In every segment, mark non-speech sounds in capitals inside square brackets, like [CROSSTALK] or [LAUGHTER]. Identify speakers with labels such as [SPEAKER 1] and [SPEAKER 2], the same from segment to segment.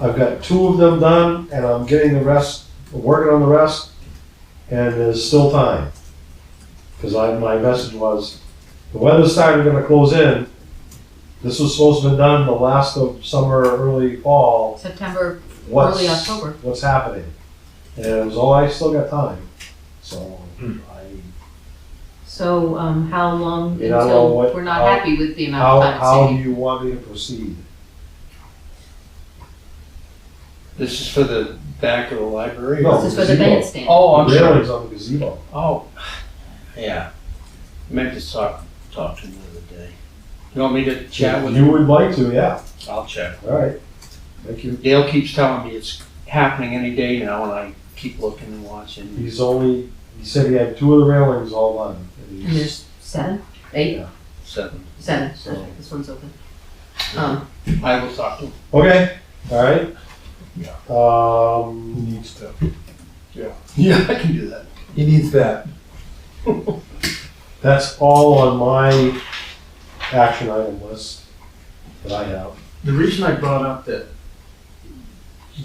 [SPEAKER 1] I've got two of them done, and I'm getting the rest, working on the rest, and there's still time. Because I, my message was, the weather started gonna close in. This was supposed to be done the last of summer, early fall.
[SPEAKER 2] September,
[SPEAKER 1] What's,
[SPEAKER 2] Early October.
[SPEAKER 1] What's happening? And it was, oh, I still got time. So
[SPEAKER 3] Hmm.
[SPEAKER 1] I,
[SPEAKER 2] so, um, how long
[SPEAKER 1] You know, well,
[SPEAKER 2] until
[SPEAKER 1] what-
[SPEAKER 2] we're not
[SPEAKER 1] how-
[SPEAKER 2] happy with the
[SPEAKER 1] how,
[SPEAKER 2] amount of
[SPEAKER 1] how do
[SPEAKER 2] time it's
[SPEAKER 1] you want me to proceed?
[SPEAKER 3] This is for the back of the library?
[SPEAKER 1] No.
[SPEAKER 2] taking? This is for the
[SPEAKER 1] Zero.
[SPEAKER 2] bandstand.
[SPEAKER 3] Oh, I'm
[SPEAKER 1] The
[SPEAKER 3] sorry.
[SPEAKER 1] railings on the gazebo.
[SPEAKER 3] Oh, yeah. Meant to talk, talk to him the other day. You want me to chat with
[SPEAKER 1] You
[SPEAKER 3] him?
[SPEAKER 1] would like to, yeah,
[SPEAKER 3] I'll chat.
[SPEAKER 1] all right. Thank you.
[SPEAKER 3] Dale keeps telling me it's happening any day now and I keep looking and watching.
[SPEAKER 1] He's only, he said he had two of the railings all done. and
[SPEAKER 2] And
[SPEAKER 1] he's-
[SPEAKER 2] there's seven, eight,
[SPEAKER 3] Seven.
[SPEAKER 2] seven,
[SPEAKER 1] So-
[SPEAKER 2] okay, this one's open. Um,
[SPEAKER 3] I will talk to him.
[SPEAKER 1] Okay, all right.
[SPEAKER 3] Yeah.
[SPEAKER 4] He
[SPEAKER 1] Um,
[SPEAKER 4] needs to.
[SPEAKER 3] Yeah, I can do that.
[SPEAKER 4] He needs that.
[SPEAKER 1] that's all on my action item list that I have.
[SPEAKER 3] The reason I brought up that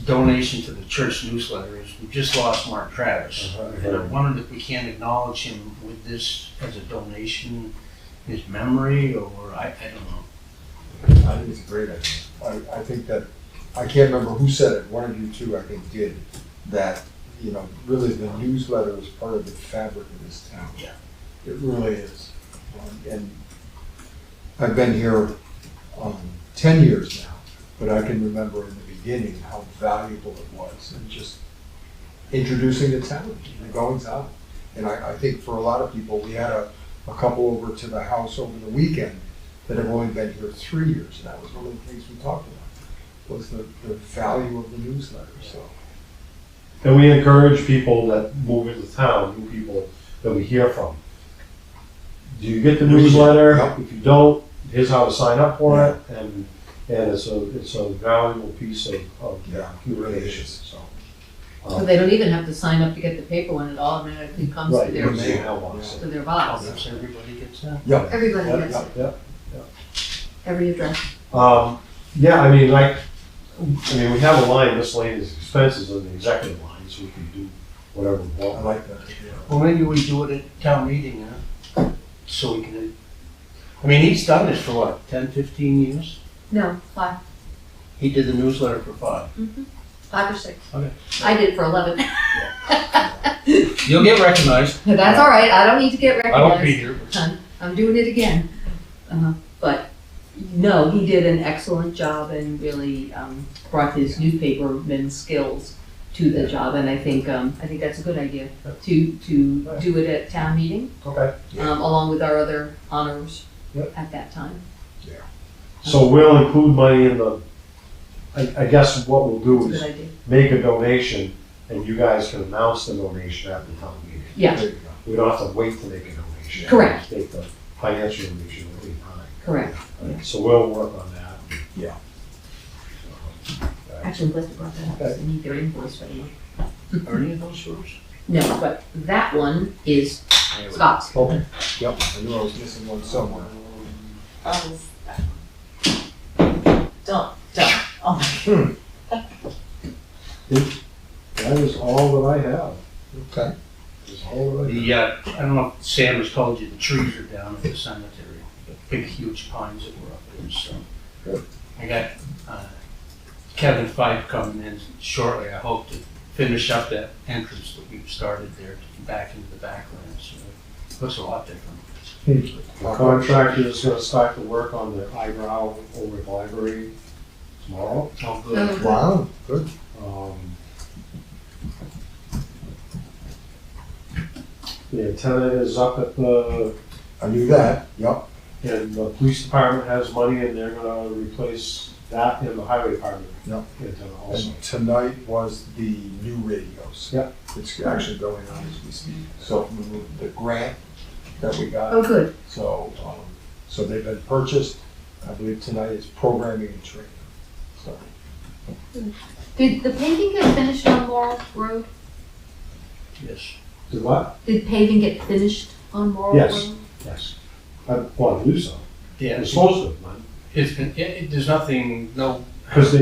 [SPEAKER 3] donation to the church newsletter is we just lost Mark Travis.
[SPEAKER 1] Uh-huh.
[SPEAKER 3] And I wondered if we can acknowledge him with this as a donation, his memory, or I, I don't know.
[SPEAKER 4] I think it's a great idea. I, I think that, I can't remember who said it, one of you two, I think, did, that, you know, really the newsletter is part of the fabric of this town.
[SPEAKER 3] Yeah.
[SPEAKER 4] It really is. Um, And I've been here, um, ten years now, but I can remember in the beginning how valuable it was and just introducing the town, the goings on. And I, I think for a lot of people, we had a, a couple over to the house over the weekend that have only been here three years, and that was one of the things we talked about, was the, the value of the newsletter, so.
[SPEAKER 1] And we encourage people that move into town, new people that we hear from. Do you get the newsletter?
[SPEAKER 4] Yeah.
[SPEAKER 1] If you don't, here's how to sign up for it, and, and it's a, it's a valuable piece of, of
[SPEAKER 4] Yeah.
[SPEAKER 1] communication, so. um,
[SPEAKER 2] so they don't even have to sign up to get the paper one, it automatically comes to
[SPEAKER 1] Right,
[SPEAKER 2] their,
[SPEAKER 1] it's in the mailbox.
[SPEAKER 2] to their
[SPEAKER 3] I'll
[SPEAKER 2] box.
[SPEAKER 3] guess everybody gets that.
[SPEAKER 4] Yeah.
[SPEAKER 2] Everybody
[SPEAKER 1] Yep,
[SPEAKER 2] gets it,
[SPEAKER 1] yep, yep.
[SPEAKER 2] every address.
[SPEAKER 1] Um, yeah, I mean, like, I mean, we have a line, miscellaneous expenses on the executive line, so we can do whatever we
[SPEAKER 4] I
[SPEAKER 1] want.
[SPEAKER 4] like that. idea.
[SPEAKER 3] Well, maybe we do it at town meeting, huh? So we can, I mean, he's done this for what, ten, fifteen years?
[SPEAKER 2] No, five, Mm-hmm.
[SPEAKER 3] He did the newsletter for five.
[SPEAKER 2] five or six.
[SPEAKER 3] Okay.
[SPEAKER 2] I did for eleven. [LAUGHS]
[SPEAKER 3] You'll get recognized.
[SPEAKER 2] That's all right, I don't need to get
[SPEAKER 3] I
[SPEAKER 2] recognized.
[SPEAKER 3] won't be here, but
[SPEAKER 2] I'm, I'm doing it again. Uh, But, no, he did an excellent job and really um, brought his newspaperman skills to the job. And I think, um, I think that's a good idea to, to do it at town meeting,
[SPEAKER 1] Okay.
[SPEAKER 2] um, along with our other honors
[SPEAKER 1] Yep.
[SPEAKER 2] at that time.
[SPEAKER 1] So we'll include money in the, I, I guess what we'll do
[SPEAKER 2] It's a
[SPEAKER 1] is
[SPEAKER 2] good idea.
[SPEAKER 1] make a donation and you guys can announce the donation at the town meeting.
[SPEAKER 2] Yeah,
[SPEAKER 4] There you go.
[SPEAKER 1] We don't have to wait to make a donation.
[SPEAKER 2] Correct.
[SPEAKER 1] Make the financial donation at any time.
[SPEAKER 2] correct.
[SPEAKER 1] So we'll work on that.
[SPEAKER 4] Yeah.
[SPEAKER 2] Actually, Lester brought that up, so I need their invoice for the month.
[SPEAKER 3] are any of those yours?
[SPEAKER 2] No, but that one is Scott's.
[SPEAKER 4] Okay, yep, I knew I was missing one somewhere.
[SPEAKER 5] Oh, don't, don't.
[SPEAKER 1] That is all that I have.
[SPEAKER 4] Okay.
[SPEAKER 1] Is all that I have.
[SPEAKER 3] The, uh, I don't know if Sam has told you, the trees are down at the cemetery, the big huge pines that were up there, so.
[SPEAKER 4] Good.
[SPEAKER 3] I got, uh, Kevin Fife coming in shortly, I hope to finish up that entrance that we've started there to come back into the background, so it looks a lot different.
[SPEAKER 1] The contractor is gonna start the work on the eyebrow over at the library tomorrow.
[SPEAKER 3] Oh,
[SPEAKER 2] Oh.
[SPEAKER 4] Wow, good.
[SPEAKER 1] Um, The antenna is up at the
[SPEAKER 4] I knew that, yep.
[SPEAKER 1] And the police department has money and they're gonna replace that in the highway department.
[SPEAKER 4] Yep.
[SPEAKER 1] antenna also.
[SPEAKER 4] And tonight was the new radios.
[SPEAKER 1] Yep.
[SPEAKER 4] It's actually going on as we speak. So we moved the grant that we got.
[SPEAKER 2] Oh, good.
[SPEAKER 4] So, um, so they've been purchased, I believe tonight is programming and training, so.
[SPEAKER 2] Did the painting get finished on Laurel Road?
[SPEAKER 3] Yes.
[SPEAKER 1] Did what?
[SPEAKER 2] Did paving get finished on Laurel Road?
[SPEAKER 1] Yes. Yes. I want to do so.
[SPEAKER 3] Yeah,
[SPEAKER 1] It's supposed to, man.
[SPEAKER 3] it's been, it, it- there's nothing, no
[SPEAKER 1] Cause they,